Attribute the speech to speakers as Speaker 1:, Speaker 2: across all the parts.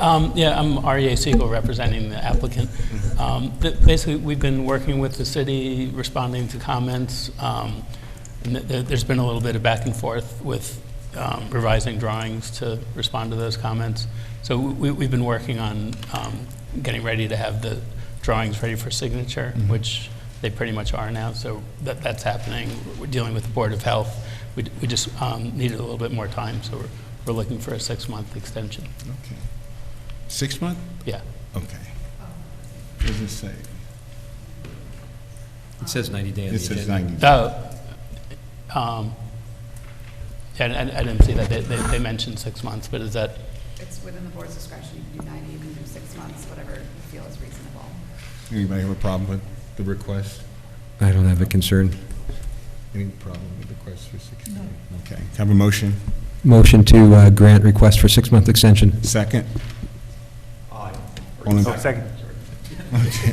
Speaker 1: Um, Yeah, I'm REA Siegel, representing the applicant. Um, th- Basically, we've been working with the city, responding to comments. um, and th- th- There's been a little bit of back and forth with um, revising drawings to respond to those comments. So we- we've been working on um, getting ready to have the drawings ready for signature, which they pretty much are now, so that that's happening. We're dealing with the Board of Health. We d- we just um, needed a little bit more time, so we're we're looking for a six-month extension.
Speaker 2: Okay. Six month?
Speaker 1: Yeah.
Speaker 2: Okay. What does it say?
Speaker 3: It says 90 day on the
Speaker 2: It says
Speaker 3: agenda.
Speaker 2: 90.
Speaker 1: Oh, um, yeah, I, I didn't see that. They, they, they mentioned six months, but is that,
Speaker 4: It's within the board's discretion, you can do 90, you can do six months, whatever you feel is reasonable.
Speaker 2: Anybody have a problem with the request?
Speaker 3: I don't have a concern.
Speaker 2: Any problem with the request for six? months? Okay. Have a motion?
Speaker 3: Motion to uh, grant request for six-month extension.
Speaker 2: Second? Aye.
Speaker 5: Oh, second.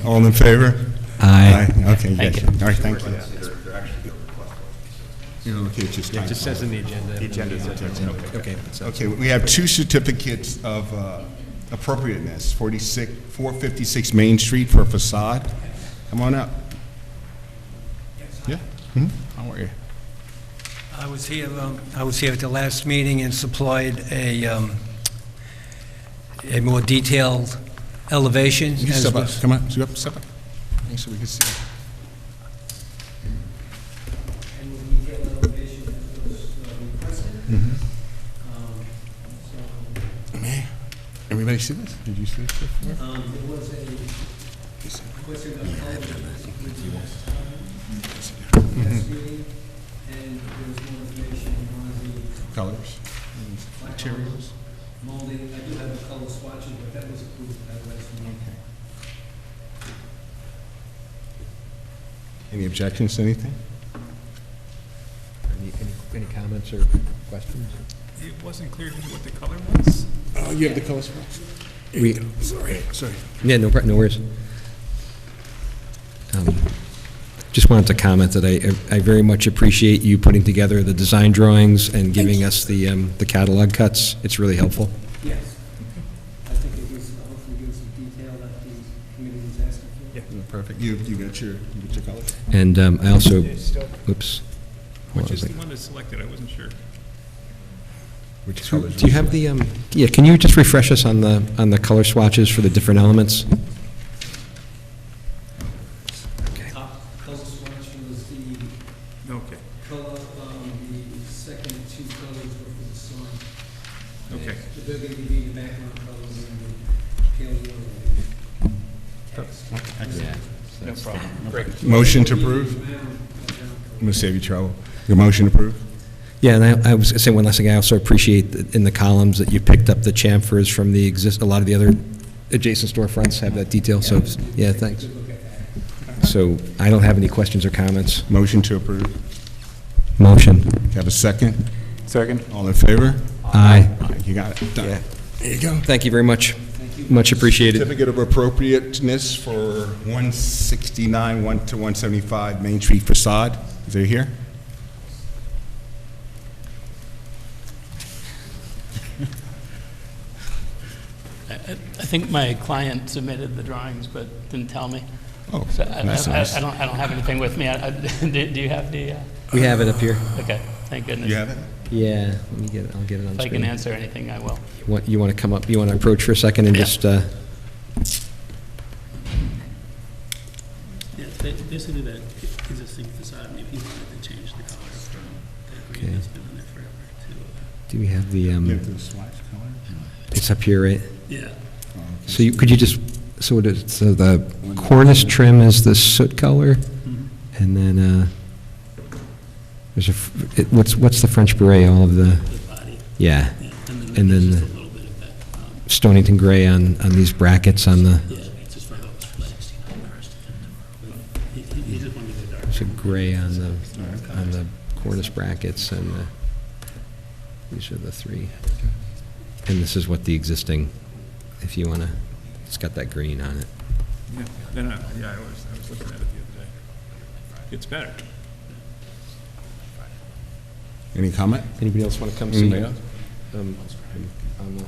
Speaker 2: All in favor?
Speaker 3: Aye.
Speaker 2: Okay, yes.
Speaker 1: Thank you.
Speaker 2: All right, thank you. You know, okay, it's just
Speaker 3: It just
Speaker 2: typo.
Speaker 3: says in the agenda. The Okay. that's it.
Speaker 2: Okay, we have two certificates of uh, appropriateness, 46, 456 Main Street for facade. Come on up. Yeah? Hmm? How are you?
Speaker 6: I was here, um, I was here at the last meeting and supplied a, um, a more detailed elevation.
Speaker 2: You can
Speaker 6: as
Speaker 2: step up,
Speaker 6: was-
Speaker 2: come on, step up, step up. Make sure we can see.
Speaker 6: A more detailed elevation that was uh, requested. Um, so,
Speaker 2: Everybody see this? Did you see this before?
Speaker 6: um, There was a, what's in the last meeting, and there was more information on the
Speaker 2: Mm-hmm. Colors?
Speaker 6: materials. Molding, I do have a color swatches, but that was approved at the last meeting.
Speaker 2: Any objections to anything?
Speaker 3: Any- any- Any comments or questions?
Speaker 5: It wasn't clear to me what the color was.
Speaker 2: Oh, you have the colors for
Speaker 3: We,
Speaker 2: Sorry, sorry.
Speaker 3: yeah, no, pro- no worries. Um, Just wanted to comment that I, I very much appreciate you putting together the design drawings and giving us the, um, the catalog cuts. It's really helpful.
Speaker 6: Yes. I think it gives, hopefully gives some detail that the committee was asking for.
Speaker 2: Perfect. You, you got your, you got your colors?
Speaker 3: And um, I also, oops. Hold
Speaker 5: Which
Speaker 3: on a
Speaker 5: is the
Speaker 3: minute.
Speaker 5: one that's selected, I wasn't sure.
Speaker 2: Which colors?
Speaker 3: Do you have the, um, yeah, can you just refresh us on the, on the color swatches for the different elements?
Speaker 6: Top color swatch was the
Speaker 5: Okay,
Speaker 6: color, um, the second two colors were for the sun.
Speaker 5: Okay.
Speaker 6: The burgundy being the background colors and the pale yellow. being the text.
Speaker 5: no problem. Great.
Speaker 2: Motion to approve? I'm gonna save you trouble. Your motion to approve?
Speaker 3: Yeah, and I, I was gonna say one last thing, I also appreciate that in the columns that you picked up the chamfers from the exist, a lot of the other adjacent storefronts have that detail, so, yeah, thanks. So I don't have any questions or comments.
Speaker 2: Motion to approve.
Speaker 3: Motion.
Speaker 2: Have a second?
Speaker 5: Second.
Speaker 2: All in favor?
Speaker 3: Aye.
Speaker 2: All right, you got it. Done. There you go.
Speaker 3: Thank you very much. Much appreciated.
Speaker 2: Certificate of appropriateness for 169, 1 to 175 Main Street facade. Is it here?
Speaker 1: I, I I think my client submitted the drawings, but didn't tell me.
Speaker 2: Oh,
Speaker 1: So I, I,
Speaker 2: that's nice.
Speaker 1: I don't, I don't have anything with me. I, I, do, do you have the, uh,
Speaker 3: We have it up here.
Speaker 1: okay, thank goodness.
Speaker 2: You have it?
Speaker 3: Yeah, let me get it, I'll get it on
Speaker 1: If I
Speaker 3: screen.
Speaker 1: can answer anything, I will.
Speaker 3: What, you wanna come up, you wanna approach for a second and
Speaker 1: Yeah.
Speaker 3: just, uh,
Speaker 7: Yeah, ba- basically that existing facade, if you wanted to change the color from that green
Speaker 3: Okay.
Speaker 7: that's been in there forever to, uh,
Speaker 3: do we have the,
Speaker 2: You
Speaker 3: um,
Speaker 2: have the swatch color?
Speaker 3: it's up here, right?
Speaker 7: yeah,
Speaker 1: Hmm.
Speaker 2: Oh, okay.
Speaker 3: So you, could you just, so what is, so the cornice trim is the soot color? And then, uh, there's a, f- it- what's, what's the French beret, all of the,
Speaker 7: the body.
Speaker 3: yeah,
Speaker 7: yeah, And
Speaker 3: And
Speaker 7: then there's
Speaker 3: then
Speaker 7: just a
Speaker 3: the-
Speaker 7: little bit of that, um,
Speaker 3: Stonington gray on, on these brackets on the,
Speaker 7: yeah, just for those flags. He, he he just wanted to go dark.
Speaker 3: there's a gray on the, on the cornice brackets and the, these are the three. And this is what the existing, if you wanna, it's got that green on it.
Speaker 5: Yeah, no, no, yeah, I was, I was looking at it the other day. It's better.
Speaker 2: Any comment?
Speaker 3: Anybody else wanna come
Speaker 2: Mm-hmm. Anybody else?
Speaker 3: um, on the